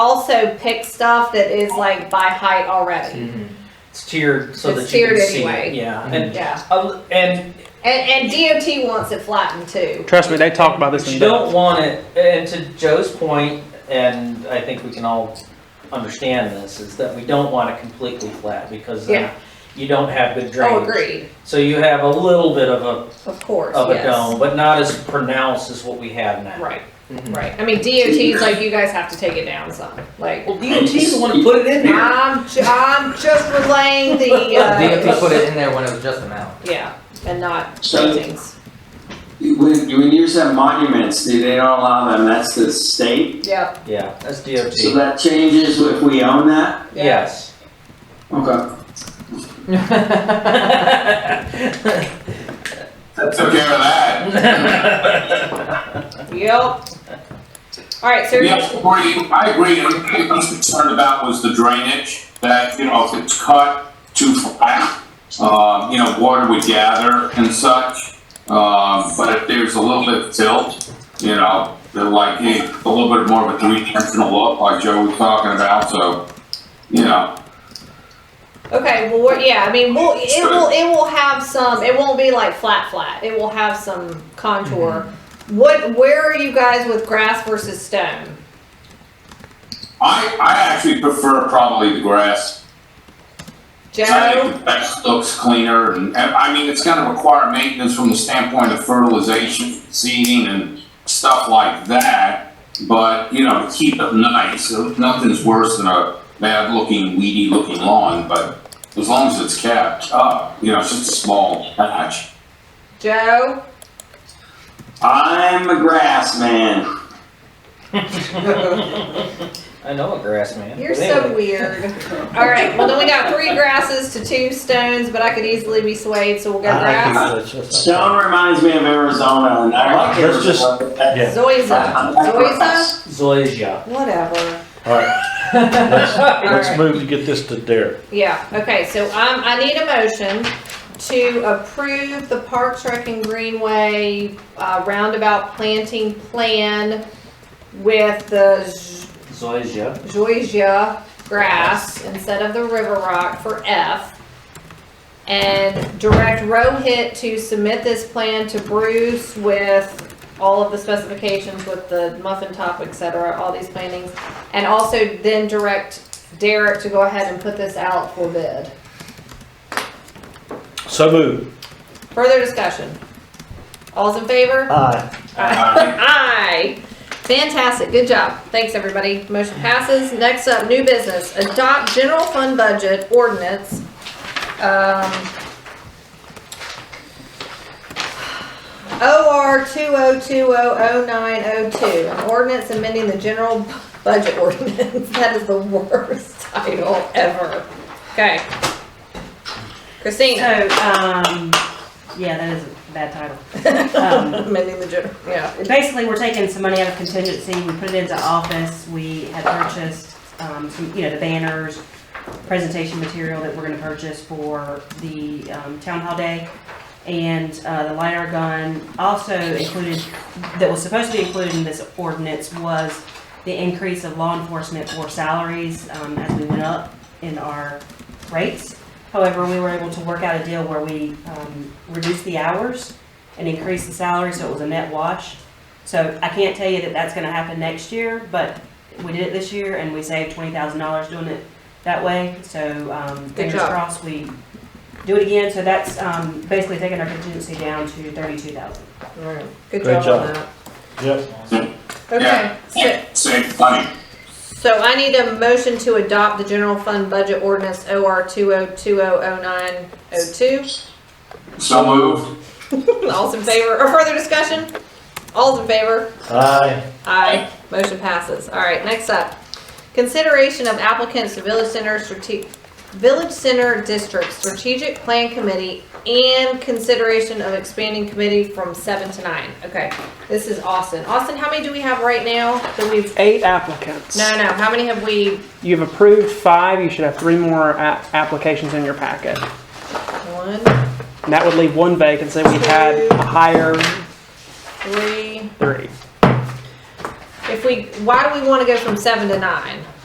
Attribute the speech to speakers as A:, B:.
A: also pick stuff that is like by height already.
B: It's tiered so
A: It's
B: that you can
A: tiered
B: see
A: anyway.
B: it. Yeah,
C: Mhm.
B: and
A: Yeah,
B: uh, and
A: and, and DOT wants it flattened too.
C: Trust me, they talk about this
B: you
C: in
B: don't
C: depth.
B: want it. And to Joe's point, and I think we can all understand this is that we don't want it completely flat because then
A: Yeah.
B: you don't have good drainage.
A: Oh, agreed,
B: So you have a little bit of a
A: of course,
B: of a
A: yes.
B: dome, but not as pronounced as what we have now.
A: Right,
C: Mhm.
A: right. I mean, DOT's like, you guys have to take it down some, like.
B: Well, DOT's the one who put it in there.
A: I'm, ju- I'm just relaying the,
D: DOT
A: uh,
D: put it in there when it was just a mound.
A: yeah, and not
E: So-
A: paintings.
E: When, when you said monuments, do they don't allow them? That's the state.
A: Yep,
B: Yeah, that's DOT.
E: So that changes if we own that?
A: yeah.
B: Yes.
E: Okay.
F: Took care of that.
A: Yep. Alright, so,
F: Yeah, I agree. I agree. And what I was concerned about was the drainage, that, you know, if it's cut too flat, um, you know, water would gather and such. Um, but if there's a little bit of tilt, you know, they're like, hey, a little bit more of a three-dimensional look, like Joe was talking about, so, you know,
A: okay, well, we're, yeah, I mean, we'll, it will, it will have some, it won't be like flat, flat. It will have some contour. What, where are you guys with grass versus stone?
F: I, I actually prefer probably the grass I
A: Joe?
F: think the best looks cleaner, and, and, I mean, it's gonna require maintenance from the standpoint of fertilization, seeding, and stuff like that. But, you know, keep it nice, uh, nothing's worse than a bad-looking, weedy-looking lawn, but as long as it's kept up, you know, it's just a small patch.
A: Joe?
E: I'm a grass man.
B: I know a grass man.
A: You're
B: but
A: so
B: anyway.
A: weird. Alright, well, then we got three grasses to two stones, but I could easily be swayed, so we'll go
E: I
A: grass.
E: like
G: Stone.
E: Stone reminds me of Arizona, and I like
G: Let's just-
E: Arizona. but that-
G: Yeah.
A: Zoysia.
E: I like
A: Zoysia?
E: grass.
B: Zoysia.
A: Whatever.
G: All right, let's
A: Alright.
G: move to get this to Derek.
A: Yeah, okay, so um, I need a motion to approve the Park Trek and Greenway, uh, roundabout planting plan with the Z-
B: Zoysia.
A: zoysia grass instead of the river rock for F. And direct Rohit to submit this plan to Bruce with all of the specifications with the muffin top, et cetera, all these plantings. And also then direct Derek to go ahead and put this out for bid.
G: So move.
A: Further discussion? All's in favor?
G: Aye.
A: Uh, Aye. Fantastic, good job. Thanks, everybody. Motion passes. Next up, new business. Adopt general fund budget ordinance. Um, OR 20200902, an ordinance amending the general budget ordinance. That is the worst title ever. Okay. Christine,
H: So, um, yeah, that is a bad title. Um,
A: amending the general, yeah.
H: Basically, we're taking some money out of contingency, we put it into office, we had purchased, um, some, you know, the banners, presentation material that we're gonna purchase for the, um, town hall day, and, uh, the LiDAR gun, also included, that was supposed to be included in this ordinance was the increase of law enforcement for salaries, um, as we went up in our rates. However, we were able to work out a deal where we um, reduced the hours and increased the salary, so it was a net wash. So I can't tell you that that's gonna happen next year, but we did it this year and we saved twenty thousand dollars doing it that way. So um, fingers
A: job.
H: crossed, we do it again. So that's um, basically taking our contingency down to thirty-two thousand.
A: All right. Good
G: Great
A: job on that.
G: Yep.
A: Okay,
F: Yeah.
A: so,
F: save money.
A: so I need a motion to adopt the general fund budget ordinance OR two oh two oh oh nine oh two.
F: So moved.
A: All's in favor, or further discussion? All's in favor?
G: Aye.
A: Aye. Motion passes. All right, next up. Consideration of applicants to Village Center strate, Village Center District Strategic Plan Committee and consideration of expanding committee from seven to nine. Okay, this is Austin. Austin, how many do we have right now that we've,
I: Eight applicants.
A: no, no, how many have we
I: You've approved five. You should have three more a- applications in your packet.
A: One,
I: And that would leave one vacancy. We had a higher
A: three.
I: three.
A: If we, why do we want to go from seven to nine?